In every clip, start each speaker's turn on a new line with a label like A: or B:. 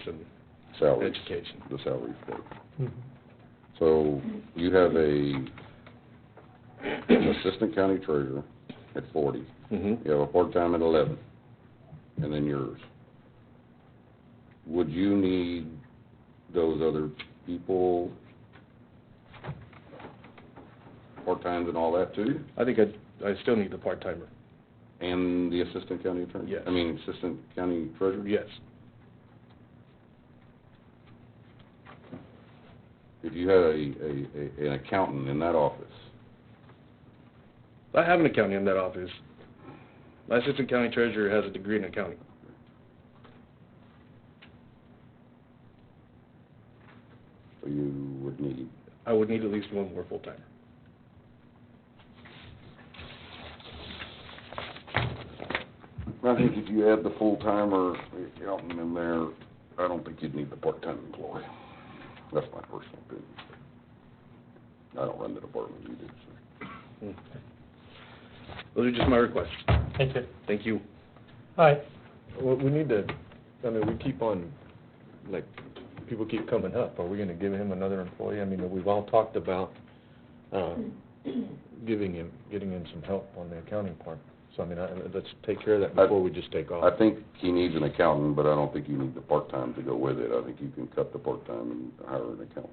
A: and
B: salary,
A: education.
B: the salary thing. Mm-hmm. So you have a, an assistant county treasurer at forty,
A: Mm-hmm.
B: you have a part-time at eleven, and then yours. Would you need those other people, part-times and all that too,
A: I think I, I still need the part-timer,
B: and the assistant county attorney?
A: Yes.
B: I mean, assistant county treasurer?
A: yes.
B: If you had a, a, a, an accountant in that office,
A: I have an accountant in that office. My assistant county treasurer has a degree in accounting.
B: so you would need
A: I would need at least one more full-timer.
B: I think if you add the full-timer accountant in there, I don't think you'd need the part-time employee. That's my personal opinion. I don't run the department, you do, so.
A: Those are just my requests.
C: Thank you.
A: Thank you.
C: All right,
D: Well, we need to, I mean, we keep on, like, people keep coming up, are we gonna give him another employee? I mean, we've all talked about, uh, giving him, getting him some help on the accounting part. So, I mean, I, let's take care of that
B: I-
D: before we just take off.
B: I think he needs an accountant, but I don't think you need the part-time to go with it. I think you can cut the part-time and hire an accountant.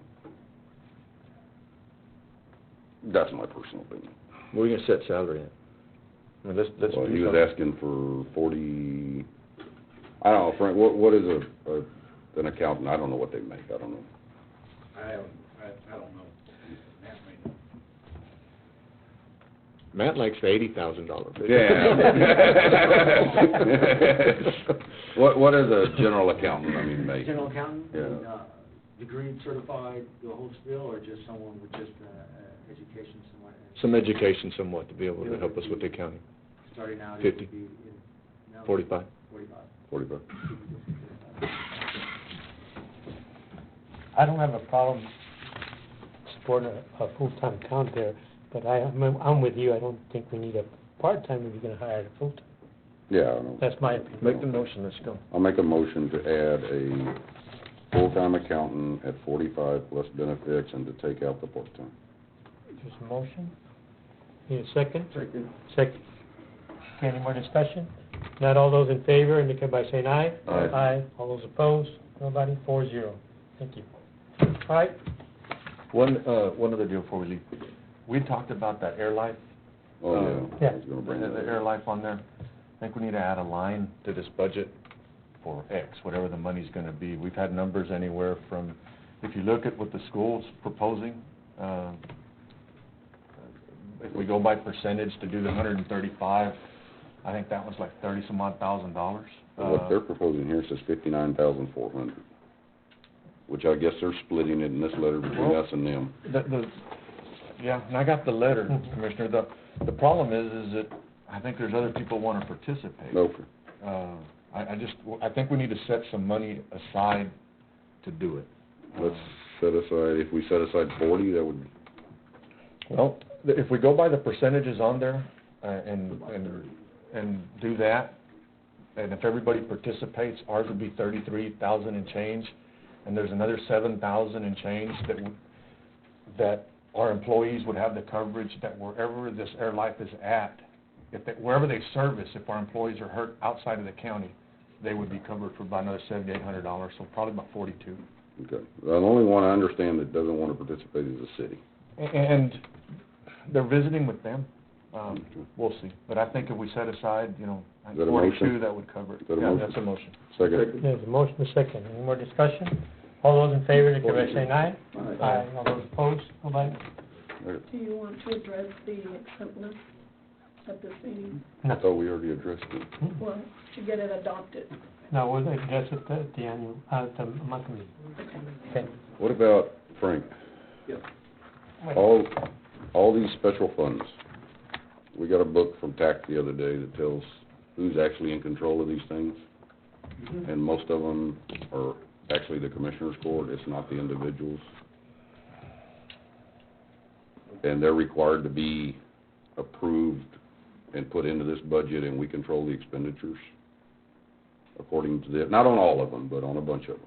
B: That's my personal opinion.
D: Where are you gonna set salary at? I mean, let's, let's
B: Well,
D: do
B: he was
D: something.
B: asking for forty, I don't know, Frank, what, what is a, a, an accountant? I don't know what they make, I don't know.
E: I don't, I, I don't know. That may-
D: Matt likes the eighty thousand dollar
B: Yeah. What, what is a general accountant, I mean, make?
E: General accountant,
B: Yeah.
E: and, uh, degree certified, the whole spiel, or just someone with just, uh, uh, education somewhat? and
D: Some education somewhat to be able to help us with the accounting,
E: Starting out, it
D: Fifty.
E: would be. in- no,
D: forty-five.
E: Forty-five.
B: Forty-five.
C: I don't have a problem supporting a, a full-time count there, but I, I'm, I'm with you, I don't think we need a part-time if you're gonna hire a full-time.
B: Yeah, I don't know.
C: That's my opinion.
D: Make the motion, let's go.
B: I'll make a motion to add a full-time accountant at forty-five plus benefits and to take out the part-time.
C: There's a motion. Need a second?
E: Second.
C: Second. Okay, Any more discussion? Not all those in favor, indicate by saying aye.
B: Aye.
C: Aye. All those opposed? Nobody? Four zero. Thank you. All right,
D: One, uh, one other deal before we leave. We talked about that air life,
B: Oh, yeah. I was gonna
D: the,
B: bring that
D: the
B: up.
D: air life on there. I think we need to add a line to this budget for X, whatever the money's gonna be. We've had numbers anywhere from, if you look at what the school's proposing, um, if we go by percentage to do the hundred and thirty-five, I think that was like thirty-some odd thousand dollars. Uh,
B: What they're proposing here says fifty-nine thousand four hundred, which I guess they're splitting it in this letter between
D: Well-
B: us and them.
D: The, the, yeah, and I got the letter, Commissioner. The, the problem is, is that I think there's other people wanna participate.
B: No,
D: Uh, I, I just, I think we need to set some money aside to do it.
B: let's set aside, if we set aside forty, that would,
D: Well, th- if we go by the percentages on there, uh, and, and, and do that, and if everybody participates, ours would be thirty-three thousand and change, and there's another seven thousand and change that, w- that our employees would have the coverage that wherever this air life is at, if, they- wherever they service, if our employees are hurt outside of the county, they would be covered for about another seventy-eight hundred dollars, so probably about forty-two.
B: okay. The only one I understand that doesn't wanna participate is the city.
D: A- And they're visiting with them. Um, We'll see. But I think if we set aside, you know,
B: Is that a motion?
D: forty-two, that would cover it.
B: Is that a
D: Yeah,
B: motion?
D: that's a motion.
B: Second.
C: there's a motion, a second. Any more discussion? All those in favor, indicate by saying aye.
E: Aye.
C: All those opposed? Nobody?
F: Do you want to address the acceptance at this meeting?
B: I thought we already addressed it.
C: Hmm?
F: Well, to get it adopted.
C: No, we'll address it at the annual, uh, the monthly meeting. Okay.
B: What about, Frank, all, all these special funds? We got a book from TAC the other day that tells who's actually in control of these things, and most of them are actually the commissioner's court, it's not the individuals. And they're required to be approved and put into this budget, and we control the expenditures according to the, not on all of them, but on a bunch of them.